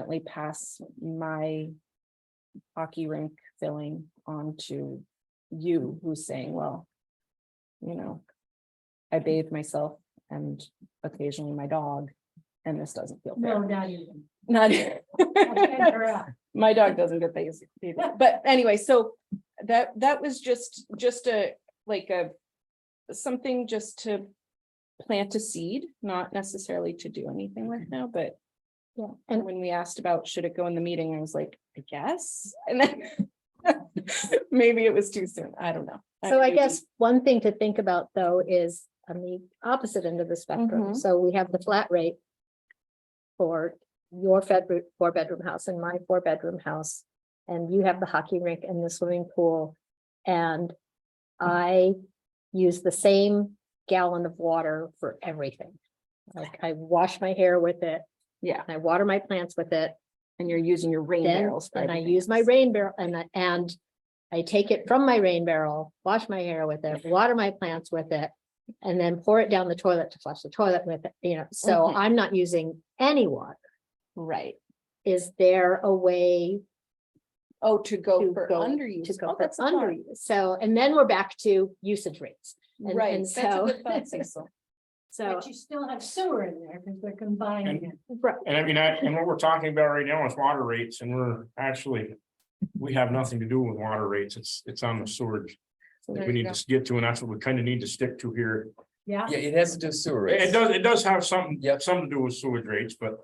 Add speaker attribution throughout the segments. Speaker 1: currently pass my hockey rink filling on to you who's saying, well, you know, I bathe myself and occasionally my dog, and this doesn't feel
Speaker 2: No,
Speaker 1: fair.
Speaker 2: not even.
Speaker 1: Not.
Speaker 2: Okay, you're up.
Speaker 1: My dog doesn't get things either, but anyway, so that, that was just, just a, like a. Something just to plant a seed, not necessarily to do anything right now, but. Yeah, and when we asked about should it go in the meeting, I was like, I guess, and then. Maybe it was too soon, I don't know.
Speaker 3: So I guess one thing to think about though is on the opposite end of the spectrum.
Speaker 2: Mm-hmm.
Speaker 1: Mhm.
Speaker 3: So we have the flat rate. For your fed, four bedroom house and my four bedroom house. And you have the hockey rink and the swimming pool. And I use the same gallon of water for everything. Like I wash my hair with it.
Speaker 1: Yeah.
Speaker 3: I water my plants with it.
Speaker 1: And you're using your rain
Speaker 3: Then,
Speaker 1: barrels. for
Speaker 3: and I
Speaker 1: everything.
Speaker 3: use my rain barrel and, I- and I take it from my rain barrel, wash my hair with it, water my plants with it. And then pour it down the toilet to flush the toilet with it, you know, so
Speaker 1: Mhm.
Speaker 3: I'm not using any water.
Speaker 1: Right,
Speaker 3: Is there a way
Speaker 1: oh, to
Speaker 3: To
Speaker 1: go for
Speaker 3: go-
Speaker 1: underuse.
Speaker 3: to
Speaker 1: Oh,
Speaker 3: go for
Speaker 1: that's
Speaker 3: under?
Speaker 1: smart.
Speaker 3: So, and then we're back to usage rates. and-
Speaker 1: Right,
Speaker 3: and
Speaker 1: that's a
Speaker 3: so-
Speaker 1: good thought, Cecil.
Speaker 3: So,
Speaker 2: But you still have sewer in there because they're combining it.
Speaker 3: right,
Speaker 4: And I mean, I, and what we're talking about right now is water rates and we're actually, we have nothing to do with water rates. It's, it's on the sewage.
Speaker 1: So there
Speaker 4: We
Speaker 1: you
Speaker 4: need
Speaker 1: go.
Speaker 4: to get to, and that's what we kind of need to stick to here.
Speaker 2: Yeah,
Speaker 5: Yeah, it has to do with sewer
Speaker 4: It it
Speaker 5: rates.
Speaker 4: does, it does have something,
Speaker 5: Yep.
Speaker 4: something to do with sewage rates, but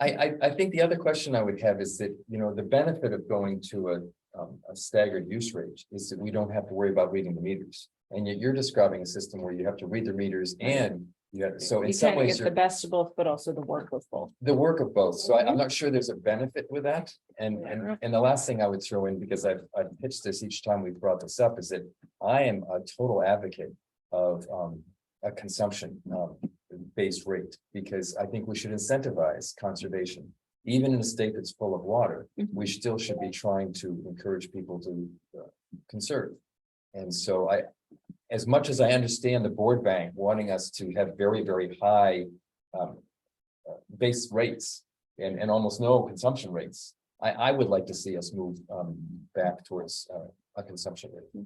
Speaker 5: I, I, I think the other question I would have is that, you know, the benefit of going to a, um, a staggered use rate is that we don't have to worry about reading the meters. And yet you're describing a system where you have to read the meters and you have, so in
Speaker 1: You
Speaker 5: some
Speaker 1: kind of
Speaker 5: ways
Speaker 1: get the
Speaker 5: you're
Speaker 1: best of both, but also the work with both.
Speaker 5: the work of both. So I, I'm not sure there's a benefit with that. And,
Speaker 1: Yeah.
Speaker 5: and, and the last thing I would throw in, because I've, I've pitched this each time we've brought this up, is that I am a total advocate of, um, a consumption, um, based rate, because I think we should incentivize conservation. Even in a state that's full of water, we still should be trying to encourage people to uh, conserve. And so I, as much as I understand the board bank wanting us to have very, very high, um, uh, base rates and, and almost no consumption rates. I, I would like to see us move, um, back towards, uh, a consumption rate.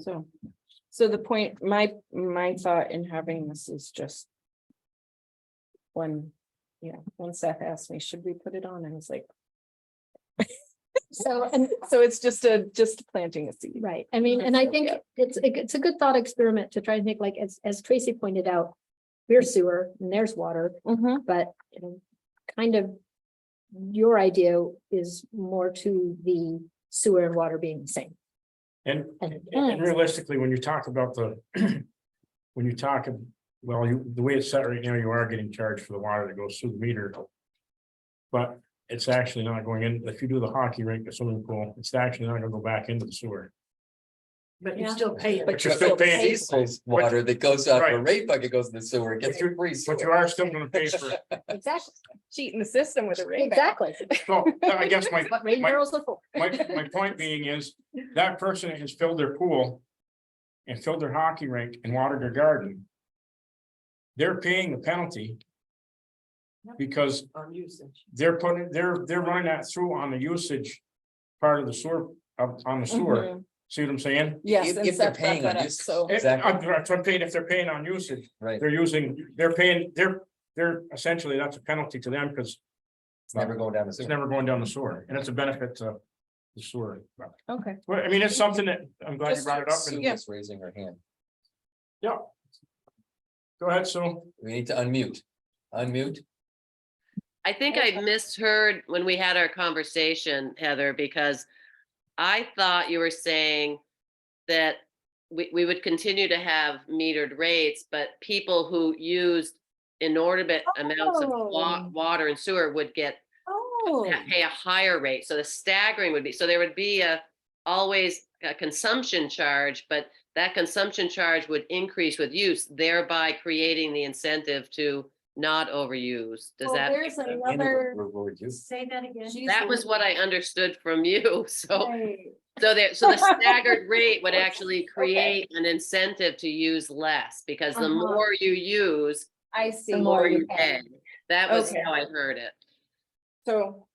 Speaker 1: So, so the point, my, my thought in having this is just. When, you know, when Seth asked me, should we put it on? I was like,
Speaker 3: so, and
Speaker 1: so it's just a, just planting a seed.
Speaker 3: Right, I mean, and I
Speaker 1: Understood,
Speaker 3: think
Speaker 1: yeah.
Speaker 3: it's, a g- it's a good thought experiment to try and think, like, as, as Tracy pointed out. We're sewer and there's water,
Speaker 1: Mhm.
Speaker 3: but you know, kind of. Your idea is more to the sewer and water being the same.
Speaker 4: And,
Speaker 3: And
Speaker 4: and-
Speaker 3: ends.
Speaker 4: and realistically, when you talk about the, when you talk, ab- well, you, the way it's set right now, you are getting charged for the water that goes through the meter. But it's actually not going in, if you do the hockey rink, the swimming pool, it's actually not gonna go back into the sewer.
Speaker 2: but you still pay it.
Speaker 1: But
Speaker 4: But
Speaker 1: you're
Speaker 4: you're still paying,
Speaker 5: Cecil's water that goes out, the
Speaker 4: Right.
Speaker 5: rate bucket goes to the sewer, it gets
Speaker 4: But you-
Speaker 5: free.
Speaker 4: but you
Speaker 5: sewer.
Speaker 4: are still gonna pay for it.
Speaker 3: Exactly,
Speaker 1: Cheating the system with a ring.
Speaker 3: exactly.
Speaker 4: So I guess my,
Speaker 3: What rain
Speaker 4: my-
Speaker 3: barrels look for.
Speaker 4: my, my point being is, that person has filled their pool. And filled their hockey rink and watered their garden. They're paying the penalty. Because
Speaker 2: On usage.
Speaker 4: they're putting, they're, they're running that through on the usage. Part of the sewer, of- on
Speaker 2: Mm-hmm.
Speaker 4: the sewer, see what I'm saying?
Speaker 1: Mm-hmm. Yes.
Speaker 5: If-
Speaker 1: and
Speaker 5: if they're
Speaker 1: Seth brought
Speaker 5: paying on
Speaker 1: that up,
Speaker 5: this-
Speaker 1: So,
Speaker 4: If,
Speaker 5: Exactly.
Speaker 4: I'm that's what I'm saying, if they're paying on usage,
Speaker 5: Right,
Speaker 4: they're using, they're paying, they're, they're essentially, that's a penalty to them, because
Speaker 5: it's never going down the
Speaker 4: it's
Speaker 5: sewer.
Speaker 4: never going down the sewer, and it's a benefit to. The sewer, But-
Speaker 1: okay,
Speaker 4: well, I mean, it's something that, I'm glad you brought it up, and,
Speaker 1: Yeah.
Speaker 5: Cecil's raising her hand.
Speaker 4: yeah. Go ahead, Sue,
Speaker 5: We need to unmute, unmute.
Speaker 6: I think I misheard when we had our conversation, Heather, because I thought you were saying that we, we would continue to have metered rates, but people who used inordinate amounts of wa-
Speaker 3: Oh.
Speaker 6: water and sewer would get,
Speaker 1: oh,
Speaker 6: pay a higher rate. So the staggering would be, so there would be a, always a consumption charge, but that consumption charge would increase with use, thereby creating the incentive to not overuse. Does
Speaker 2: Well,
Speaker 6: that? make
Speaker 2: there's
Speaker 6: sense?
Speaker 2: another-
Speaker 5: And we're- we're- we're just-
Speaker 2: Say that again.
Speaker 6: That was what I understood from you, so,
Speaker 2: Right.
Speaker 6: so there, so the staggered rate would actually create an incentive to use less, because the
Speaker 2: Uh-huh.
Speaker 6: more you use,
Speaker 1: I
Speaker 6: the
Speaker 1: see.
Speaker 6: more you pay. That was
Speaker 1: Okay.
Speaker 6: how I heard it.
Speaker 1: So